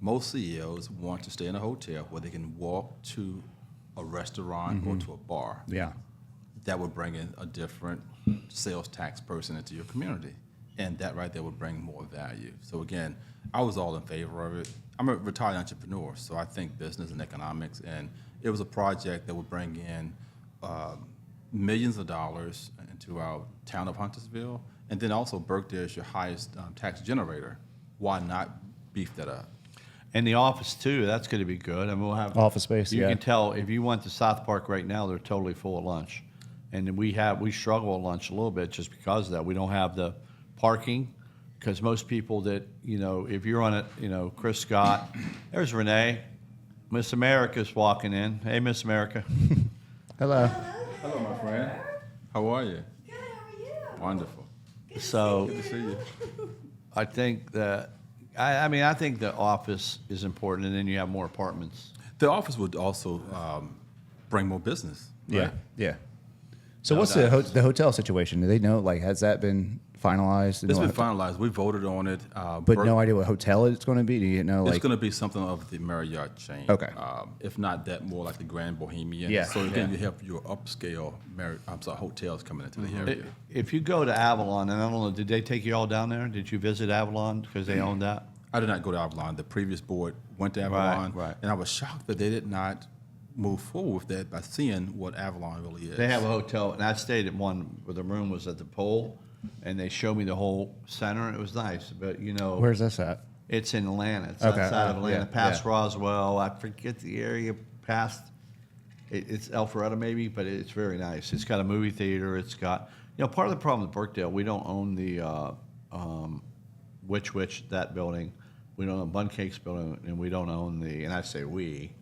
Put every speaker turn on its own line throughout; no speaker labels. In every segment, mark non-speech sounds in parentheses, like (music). most CEOs want to stay in a hotel where they can walk to a restaurant or to a bar.
Yeah.
That would bring in a different sales tax person into your community. And that right there would bring more value. So again, I was all in favor of it. I'm a retired entrepreneur, so I think business and economics. And it was a project that would bring in um, millions of dollars into our town of Huntersville. And then also Berkdale is your highest um, tax generator. Why not beef that up?
And the office too, that's going to be good. And we'll have
Office space,
You
yeah.
can tell if you went to South Park right now, they're totally full at lunch. And then we have we struggle at lunch a little bit just because of that. We don't have the parking because most people that you know, if you're on it, you know, Chris Scott, there's Renee, Miss America's walking in. Hey, Miss America.
Hello.
Hello, my friend. How are you?
Good, how are you?
Wonderful.
So.
Good to see you.
I think that, I, I mean, I think the office is important, and then you have more apartments.
The office would also um, bring more business.
Yeah.
right?
Yeah. So what's the ho- the hotel situation? Do they know? Like, has that been finalized?
It's been finalized. We voted on it. Uh,
But
Bert-
no idea what hotel it's going to be. Do you know?
It's
Like,
going to be something of the Marriott chain.
Okay.
Um, if not that, more like the Grand Bohemian.
Yeah,
So again,
yeah.
you have your upscale Marriott, I'm sorry, hotels coming into
Mm-hmm.
the
I-
area.
If you go to Avalon, and I don't know, did they take you all down there? Did you visit Avalon because they own that?
I did not go to Avalon. The previous board went to Avalon.
right.
And I was shocked that they did not move forward with that by seeing what Avalon really is.
They have a hotel, and I stayed at one where the room was at the pole, and they showed me the whole center, and it was nice. But you know,
where's this at?
it's in Atlanta. It's
Okay,
outside of
uh,
Atlanta,
yeah,
past
yeah.
Roswell. I forget the area past. It, it's Alpharetta maybe, but it's very nice. It's got a movie theater. It's got you know part of the problem with Burkdale, we don't own the uh, um, Witch Witch that building. We don't own Bun Cakes building, and we don't own the. And I say we,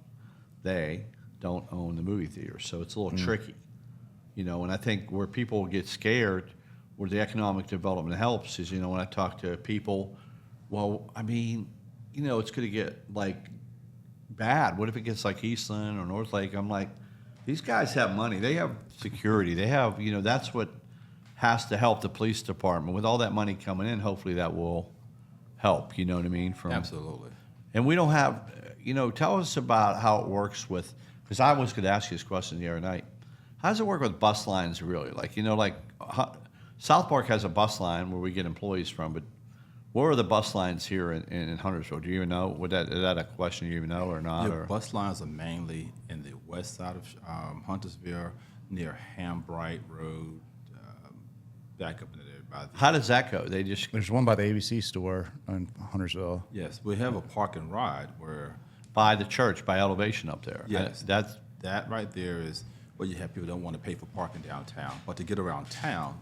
they don't own the movie theater, so it's a
Mm.
little tricky. You know, and I think where people get scared, where the economic development helps, is you know when I talk to people, well, I mean, you know, it's going to get like bad. What if it gets like Eastland or North Lake? I'm like, these guys have money. They have security. They have, you know, that's what has to help the police department. With all that money coming in, hopefully that will help. You know what I mean? From
Absolutely.
and we don't have, you know, tell us about how it works with, because I was going to ask you this question the other night. How does it work with bus lines, really? Like, you know, like how, South Park has a bus line where we get employees from, but where are the bus lines here in, in, in Huntersville? Do you even know? Would that, is that a question you even know or not?
Yeah,
or?
bus lines are mainly in the west side of um, Huntersville, near Hambright Road, um, back up in there by the.
how does that go? They just
There's one by the ABC store in Huntersville.
Yes, we have a park and ride where
buy the church by elevation up there. I-
Yes.
that's
that right there is where you have people don't want to pay for parking downtown, but to get around town,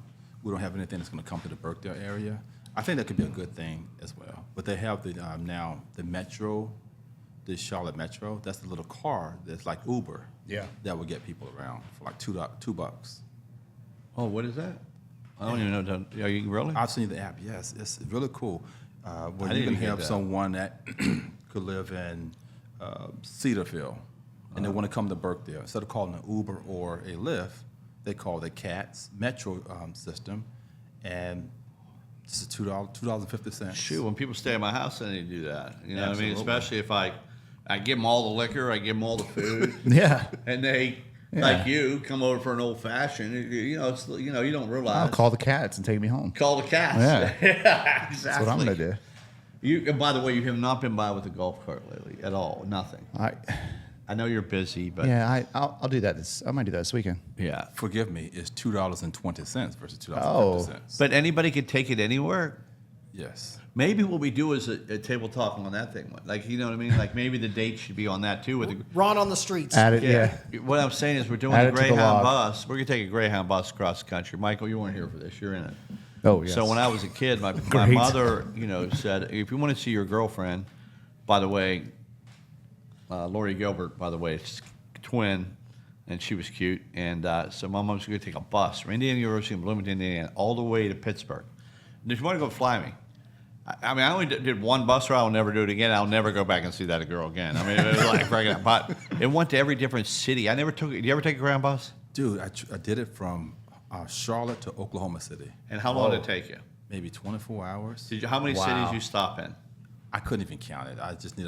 we don't have anything that's going to come to the Burkdale area. I think that could be a good thing as well. But they have the um, now the Metro, the Charlotte Metro. That's the little car that's like Uber.
Yeah.
That would get people around for like two doc- two bucks.
oh, what is that? I don't even know. Don't- Are you really?
I've seen the app. Yes, it's really cool. Uh, where
I
you
didn't
can
get
have
that.
someone that (clears throat) could live in uh, Cedarville, and
Uh-huh.
they want to come to Burkdale. Instead of calling an Uber or a Lyft, they call the CATS Metro um, system, and it's two dollars two dollars and fifty cents.
Shoot, when people stay at my house, I need to do that. You know
Absolutely.
what I mean? Especially if I, I give them all the liquor, I give them all
(laughs)
the food,
Yeah.
and they, like you, come over for an old fashioned. You- You know, it's you know, you don't
I'll
realize.
call the cats and take me home.
Call the cats.
Yeah.
(laughs) Yeah, exactly.
That's what I'm going to do.
You, and by the way, you have not been by with a golf cart lately at all. Nothing.
I,
I know you're busy, but
yeah, I, I'll, I'll do that. This I might do that this weekend.
yeah.
Forgive me, it's two dollars and twenty cents versus two dollars fifty cents.
But anybody could take it anywhere.
yes,
Maybe what we do is a, a table talk on that thing. Like you know what I mean? Like maybe the date should be on that too with the
Ron on the streets.
Add it,
Yeah.
yeah.
What I'm saying is we're doing
Add
a
it to the log.
Greyhound bus. We're gonna take a Greyhound bus across the country. Michael, you weren't here for this. You're in it.
Oh yeah.
So when I was a
(laughs)
kid, my, my
Great.
mother, you know, said if you want to see your girlfriend, by the way, uh, Lori Gilbert, by the way, it's twin, and she was cute. And uh, so my mom's gonna take a bus from Indiana University in Bloomington, Indiana, all the way to Pittsburgh. And if you want to go fly me. I- I mean, I only did- did one bus ride. I'll never do it again. I'll never go back and see that girl again. I mean, it was like breaking up. But it went to every different city. I never took. Did you ever take a ground bus?
dude, I, tr- I did it from uh, Charlotte to Oklahoma City, Oh.
And how long did it take you?
maybe twenty four hours.
Did you? How many
Oh. Wow.
cities you stop in?
I couldn't even count it. I just needed.